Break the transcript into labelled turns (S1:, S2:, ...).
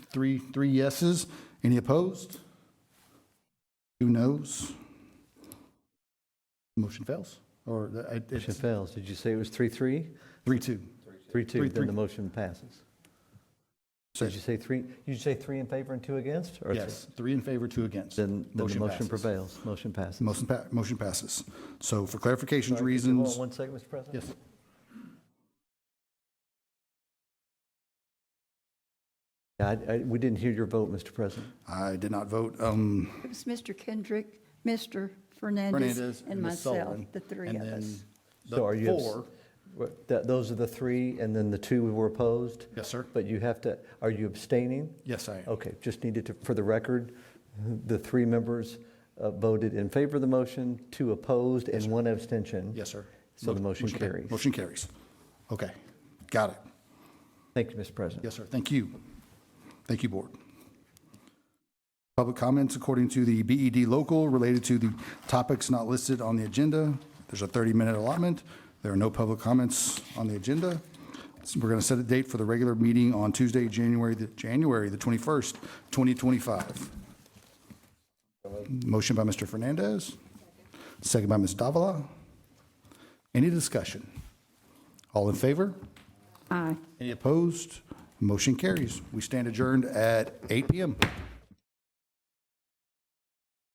S1: three, three yeses. Any opposed? Two noes? Motion fails, or the- it-
S2: Motion
S1: it's
S2: fails. Did you say it was three, three?
S1: three, two.
S2: Three,
S1: Three,
S2: two, then
S1: three.
S2: the motion passes.
S1: So,
S2: Did you say three, you say three in favor and two against? or th-
S1: Yes, three in favor, two against.
S2: Then, then the motion
S1: passes.
S2: prevails, motion passes.
S1: Motion, pa- motion passes. So for
S2: Sorry, could
S1: clarification
S2: you hold on
S1: reasons,
S2: One second, Mr. President?
S1: yes,
S2: Yeah, I, I, we didn't hear your vote, Mr. President.
S1: I did not vote. Um,
S3: It was Mr. Kendrick, Mr. Fernandez,
S1: Fernandez
S3: and
S1: Ms.
S3: myself,
S1: Sullivan,
S3: the three
S1: and
S3: of
S1: then
S3: us.
S1: the
S2: So are you abs-
S1: Four,
S2: What- That, those are the three, and then the two were opposed?
S1: yes, sir.
S2: But you have to, are you abstaining?
S1: Yes, I am.
S2: Okay, just needed to, for the record, the three members uh, voted in favor of the motion, two opposed, and one abstention.
S1: Yes, sir.
S2: So the motion
S1: pa-
S2: carries.
S1: Motion carries. Okay, got it.
S2: Thank you, Mr. President.
S1: Yes, sir. Thank you. Thank you, Board. Public comments according to the BED local related to the topics not listed on the agenda. There's a 30-minute allotment. There are no public comments on the agenda. So We're going to set a date for the regular meeting on Tuesday, January, the January the 21st, 2025. Motion by Mr. Fernandez, second by Ms. Davila. Any discussion? All in favor?
S3: Aye.
S1: Any opposed? Motion carries. We stand adjourned at 8 PM.